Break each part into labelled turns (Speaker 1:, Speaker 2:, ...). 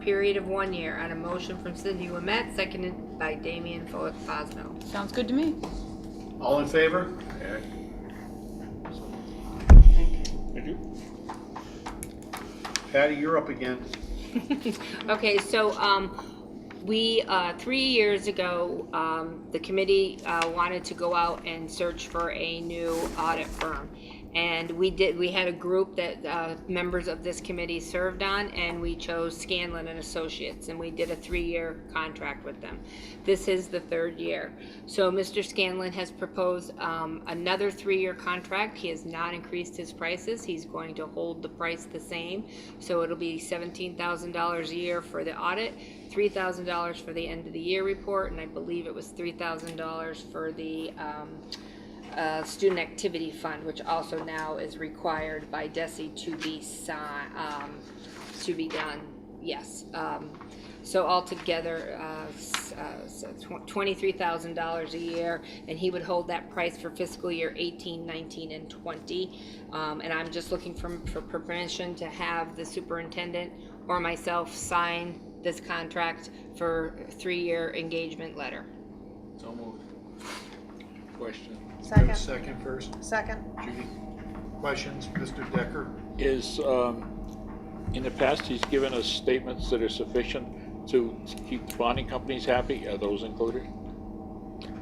Speaker 1: period of one year on a motion from Cindy Lamette, seconded by Damian Fo- Fosno.
Speaker 2: Sounds good to me.
Speaker 3: All in favor?
Speaker 4: Thank you.
Speaker 3: Patty, you're up again.
Speaker 1: Okay, so, um, we, uh, three years ago, um, the committee, uh, wanted to go out and search for a new audit firm. And we did, we had a group that, uh, members of this committee served on, and we chose Scanlon and Associates, and we did a three-year contract with them. This is the third year. So Mr. Scanlon has proposed, um, another three-year contract. He has not increased his prices. He's going to hold the price the same. So it'll be seventeen thousand dollars a year for the audit, three thousand dollars for the end of the year report, and I believe it was three thousand dollars for the, um, uh, student activity fund, which also now is required by DESI to be si- um, to be done, yes. Um, so altogether, uh, s- uh, s- tw- twenty-three thousand dollars a year, and he would hold that price for fiscal year eighteen, nineteen, and twenty. Um, and I'm just looking for, for permission to have the superintendent or myself sign this contract for three-year engagement letter.
Speaker 3: So moved. Question.
Speaker 5: Second.
Speaker 3: Give a Second first.
Speaker 5: Second.
Speaker 3: Judy, questions? Mr. Decker?
Speaker 4: Is, um, in the past, he's given us statements that are sufficient to keep bonding companies happy. Are those included?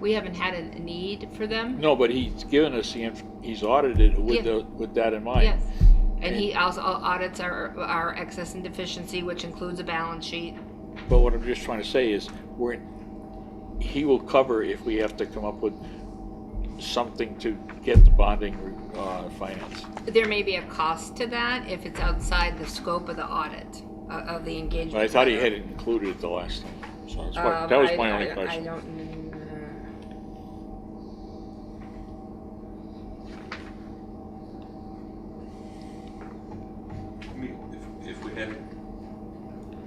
Speaker 1: We haven't had a a need for them.
Speaker 4: No, but he's given us the, inf- he's audited with
Speaker 1: Yeah.
Speaker 4: the, with that in mind.
Speaker 1: Yes, and he also audits our, our excess and deficiency, which includes a balance sheet.
Speaker 4: But what I'm just trying to say is, we're, he will cover if we have to come up with something to get the bonding, uh, finance.
Speaker 1: There may be a cost to that if it's outside the scope of the audit, uh, of the engagement.
Speaker 4: But I thought he
Speaker 1: letter.
Speaker 4: had it included the last time, so that's why-
Speaker 1: Um,
Speaker 4: that was
Speaker 1: I-
Speaker 4: my only
Speaker 1: I- I
Speaker 4: question.
Speaker 1: don't, mm,
Speaker 6: I mean, if, if we had,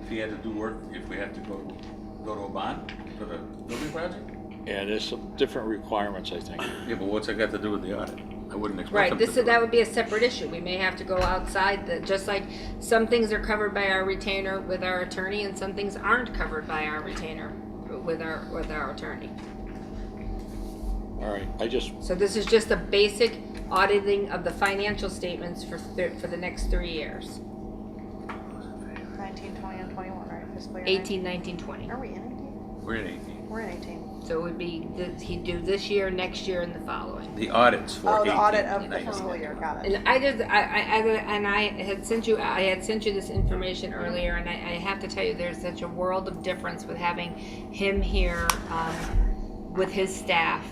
Speaker 6: if he had to do work, if we had to go, go to a bond for the building project?
Speaker 4: Yeah, there's some different requirements, I think.
Speaker 6: Yeah, but what's that got to do with the audit? I wouldn't expect
Speaker 1: right,
Speaker 6: him to
Speaker 1: this,
Speaker 6: do
Speaker 1: is- that
Speaker 6: it.
Speaker 1: would be a separate issue. We may have to go outside the, just like some things are covered by our retainer with our attorney and some things aren't covered by our retainer with our, with our attorney.
Speaker 4: All right, I just,
Speaker 1: So this is just a basic auditing of the financial statements for, thir- for the next three years.
Speaker 5: 19, 20, and 21, right? Fiscal year
Speaker 1: 18, 19, 20.
Speaker 5: 19. Are we in 18?
Speaker 6: We're in eighteen.
Speaker 5: We're in 18.
Speaker 1: So it would be, th- he'd do this year, next year, and the following.
Speaker 6: The audits for
Speaker 5: Oh,
Speaker 6: eighteen.
Speaker 5: the audit of the
Speaker 6: 19.
Speaker 5: fiscal year, got it.
Speaker 1: And I just, I, I, I- and I had sent you, I had sent you this information earlier, and I, I have to tell you, there's such a world of difference with having him here, um, with his staff.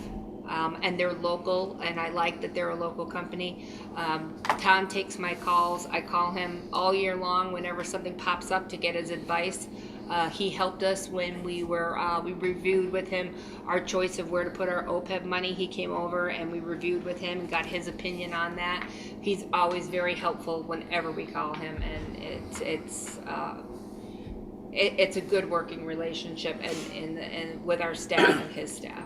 Speaker 1: Um, and they're local, and I like that they're a local company. Um, Tom takes my calls. I call him all year long whenever something pops up to get his advice. Uh, he helped us when we were uh, we reviewed with him our choice of where to put our OPEB money. He came over and we reviewed with him and got his opinion on that. He's always very helpful whenever we call him, and it's it's uh, it, it's a good working relationship and and, and with our staff and his staff.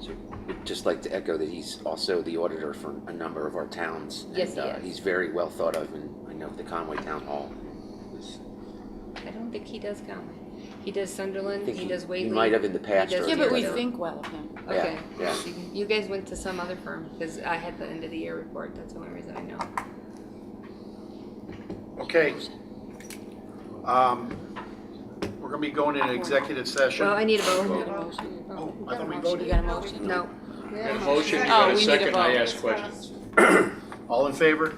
Speaker 7: So I'd just like to echo that he's also the auditor for a number of our towns.
Speaker 1: Yes, he
Speaker 7: and, uh,
Speaker 1: is.
Speaker 7: He's very well thought of, and I know the Conway Town Hall. is-
Speaker 1: I don't think he does Conway. He does Sunderland.
Speaker 7: I think
Speaker 1: He, does Waitley.
Speaker 7: He might have in the past.
Speaker 1: He does-
Speaker 7: or
Speaker 2: Yeah, but we
Speaker 7: whatever.
Speaker 2: think well of him.
Speaker 7: Yeah,
Speaker 1: Okay.
Speaker 7: yeah.
Speaker 1: You, you guys went to some other firm because I had the end of the year report. That's the only reason I know.
Speaker 3: Okay. Um, We're gonna be going into executive session.
Speaker 1: Well, I need a vote.
Speaker 3: Oh, I thought we
Speaker 2: You
Speaker 3: voted.
Speaker 2: got a motion?
Speaker 1: No.
Speaker 3: Got a motion, you
Speaker 2: Oh,
Speaker 3: got a
Speaker 2: we need a
Speaker 3: second, I
Speaker 2: vote.
Speaker 3: asked questions. All in favor?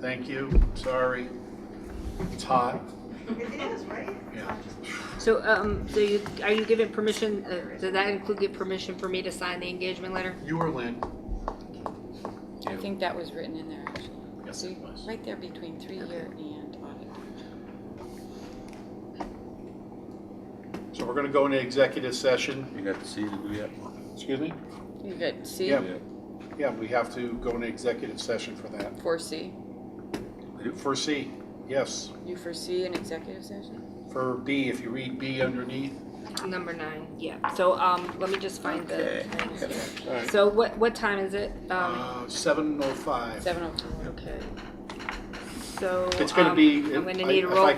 Speaker 3: Thank you, sorry. It's hot.
Speaker 5: It is, right?
Speaker 3: Yeah.
Speaker 1: So, um, so you, are you giving permission, uh, does that include give permission for me to sign the engagement letter?
Speaker 3: You or Lynn?
Speaker 2: I think that was written in there, actually.
Speaker 3: Yes,
Speaker 2: See,
Speaker 3: it was.
Speaker 2: right there between three-year and audit.
Speaker 3: So we're gonna go into executive session.
Speaker 6: You got to see the, we have.
Speaker 3: Excuse me?
Speaker 2: You good, C,
Speaker 3: Yeah. Yeah, we have to go into executive session for that.
Speaker 2: four C.
Speaker 3: For C, yes.
Speaker 2: You foresee an executive session?
Speaker 3: For B, if you read B underneath,
Speaker 1: Number nine, yeah. So, um, let me just find the.
Speaker 3: Alright.
Speaker 1: So
Speaker 2: oh
Speaker 1: what, what time is it? Um,
Speaker 3: uh, 705.
Speaker 2: Seven oh four, okay.
Speaker 1: so.
Speaker 3: It's gonna
Speaker 1: um,
Speaker 3: be-
Speaker 1: I'm gonna
Speaker 3: I-
Speaker 1: need a
Speaker 3: if
Speaker 1: roll
Speaker 3: I